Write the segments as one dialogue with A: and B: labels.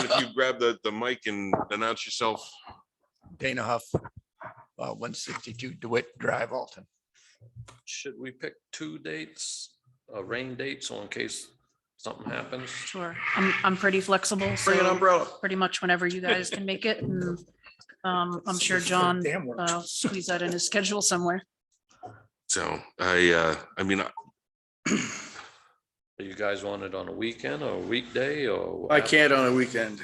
A: Dave, if you grab the, the mic and announce yourself.
B: Dana Huff,
C: uh,
B: one sixty-two DeWitt Drive, Alton.
D: Should we pick two dates, a rain date, so in case something happens?
E: Sure, I'm, I'm pretty flexible,
D: Bring an
E: so
D: umbrella.
E: pretty much whenever you guys can make it, and um, I'm sure John
B: Damn works.
E: uh, squeeze that in his schedule somewhere.
A: So I, uh, I mean, I-
D: Do you guys want it on a weekend or a weekday or?
C: I can't on a weekend.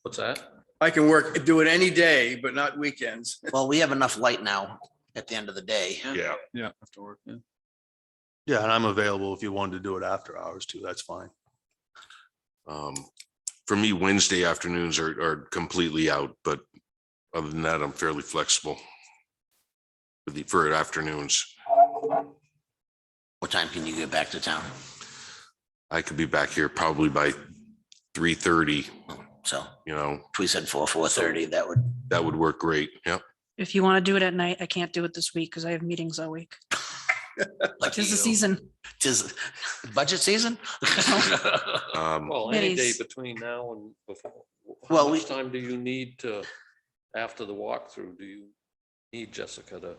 D: What's that?
C: I can work, do it any day, but not weekends.
F: Well, we have enough light now at the end of the day.
A: yeah,
G: Yeah, after work, yeah.
H: Yeah, and I'm available if you wanted to do it after hours too. That's fine.
A: um, for me, Wednesday afternoons are, are completely out, but other than that, I'm fairly flexible for the, for afternoons.
F: What time can you get back to town?
A: I could be back here probably by three thirty,
F: So
A: you know,
F: if we said four, four thirty, that would,
A: that would work great. Yep.
E: If you want to do it at night, I can't do it this week because I have meetings all week.
F: like,
E: Tis the
F: you-
E: season.
F: tis budget season?
A: Um,
D: Well, any day
E: Days.
D: between now and before. How
F: Well, we-
D: much time do you need to, after the walkthrough, do you need Jessica to?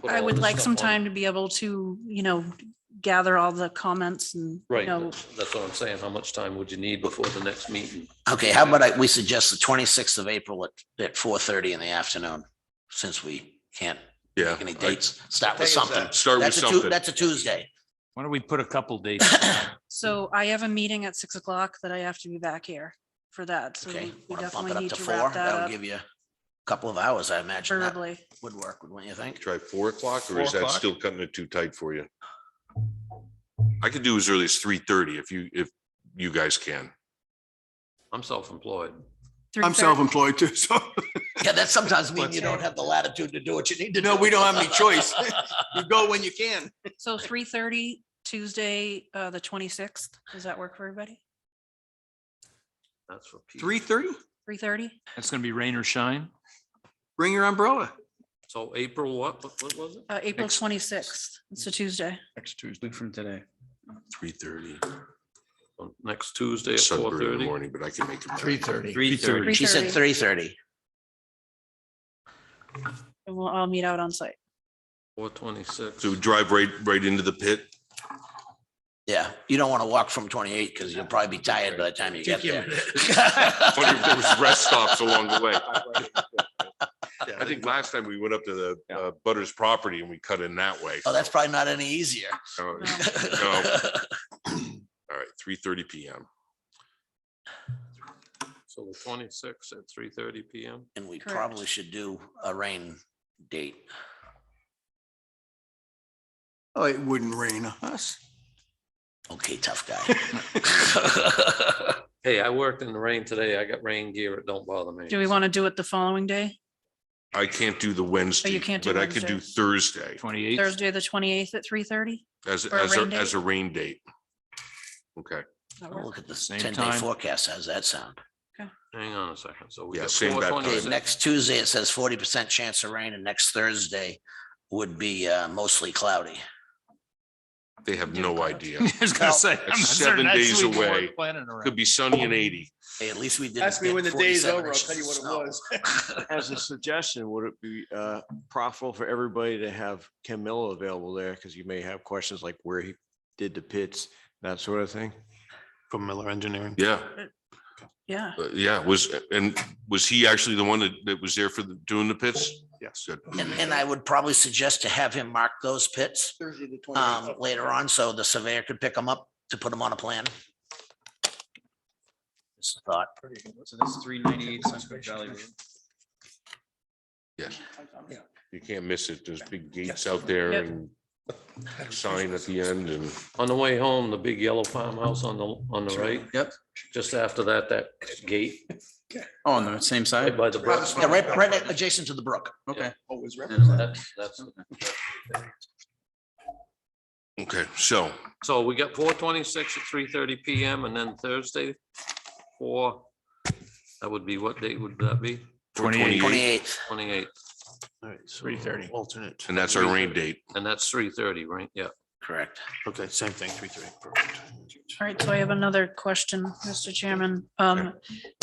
D: Put
E: I
D: all
E: would
D: this
E: like
D: stuff
E: some
D: on.
E: time to be able to, you know, gather all the comments and, you
D: Right,
E: know,
D: that's that's what I'm saying. How much time would you need before the next meeting?
F: Okay, how about I, we suggest the twenty-sixth of April at, at four thirty in the afternoon, since we can't
A: yeah.
F: make any
A: I-
F: dates, start
C: What day
F: with
C: is
F: something.
C: that?
A: Start with
F: That's a Tu-
A: something.
F: that's a Tuesday.
G: Why don't we put a couple dates? down?
E: so I have a meeting at six o'clock that I have to be back here for that. So
F: Okay,
E: we- we
F: want to bump it
E: definitely
F: up
E: need
F: to
E: to
F: four?
E: wrap that
F: That'll
E: up
F: give you a couple of hours, I imagine. That
E: verbally.
F: would work, wouldn't you think?
A: Try four o'clock or
C: Four
A: is that
C: o'clock?
A: still cutting it too tight for you? I could do as early as three thirty if you, if you guys can.
D: I'm self-employed.
H: I'm
E: 3:30.
H: self-employed too, so
F: Yeah, that sometimes means you
E: Okay.
F: don't have the latitude to do what you need to do.
C: No, we don't have any choice. You go when you can.
E: So three thirty Tuesday, uh, the twenty-sixth, does that work for everybody?
D: That's for. Pete.
C: Three thirty,
E: Three thirty?
G: It's gonna be rain or shine.
C: bring your umbrella.
D: So April, what, what what was it?
E: Uh, April
G: Next-
E: twenty-sixth, it's a Tuesday.
B: Next Tuesday.
G: Week from today.
A: Three thirty.
D: On Next Tuesday at four
A: Sudbury in the
D: thirty?
A: morning, but I can make it.
B: Three thirty.
G: Three thirty.
F: She said
E: 3:30,
F: three thirty.
E: And we'll, I'll meet out on site.
D: Four twenty-six.
A: So we drive right, right into the pit.
F: Yeah, you don't want to walk from twenty-eight because you'll probably be tired by the time you get there.
A: Wonder if there was rest stops along the way. I think last time we went up to the uh, Butters property and we cut in that way.
F: Oh, that's probably not any easier.
A: Uh, All
E: Um,
A: right, three thirty PM.
D: So the twenty-sixth at three thirty PM.
F: And we
E: Correct.
F: probably should do a rain date.
C: Oh, it wouldn't rain on us.
F: Okay, tough guy.
D: Hey, I worked in the rain today. I got rain gear. It don't bother me.
E: Do we want to do it the following day,
A: I can't do the Wednesday,
E: can't do
A: but I could do
E: Wednesday.
A: Thursday
G: Twenty-eighth.
E: Thursday, the twenty-eighth at three thirty?
A: as,
E: For a
A: as, a-
E: rain
A: as
E: date?
A: a rain date. Okay,
F: We'll Look at this
G: Same
F: ten-day
G: time.
F: forecast. How's that sound?
D: Hang on a second. So we
A: Yeah,
D: got
A: same
D: four
A: bad time.
F: Okay,
D: twenty-six.
F: next Tuesday, it says forty percent chance of rain and next Thursday would be uh, mostly cloudy.
A: they have
E: Do
A: no
E: college.
A: idea.
G: I was gonna say. I'm
A: It's
G: not
A: seven
G: certain that's
A: days
G: what we were
A: away.
G: planning around.
A: Could be sunny and eighty.
F: Hey, at least we didn't.
C: Ask me
F: get
C: when the day is
F: 47
C: over, I'll
F: inches
C: tell you
F: of
C: what it
F: snow.
C: was.
I: As a suggestion, would it be uh, profitable for everybody to have Ken Miller available there? Because you may have questions like where he did the pits, that sort of thing.
H: from Miller Engineering.
A: Yeah,
E: Yeah,
A: uh, yeah, was, and was he actually the one that, that was there for the, doing the pits?
H: Yes.
A: Good.
F: And, and I would probably suggest to have him mark those pits
C: Thursday the
F: um, later on, so the surveyor could pick them up to put them on a plan. Just a thought.
J: So that's three ninety-eight Sunset Valley Road.
A: You can't miss it. There's big gates
B: Yes.
A: out there
E: Yep.
A: and sign at the end and
D: On the way home, the big yellow farmhouse on the, on the right,
J: Yep.
D: just after that, that gate
J: Oh, on the same
D: right
J: side?
D: by the brook.
F: Yeah, right, right adjacent to the brook.
J: Okay.
C: Always represented.
D: That's, that's,
A: Okay, so
D: so we got four twenty-six at three thirty PM and then Thursday, four. That would be, what date would that be?
A: twenty-eight,
F: Twenty-eighth.
D: Twenty-eight,
H: All right, so
B: 3:30.
H: Alternate.
A: and that's our rain date.
D: and that's three thirty, right? Yeah.
F: Correct.
H: Okay, same thing, three thirty. Perfect.
E: all right, so I have another question, Mr. Chairman. Um,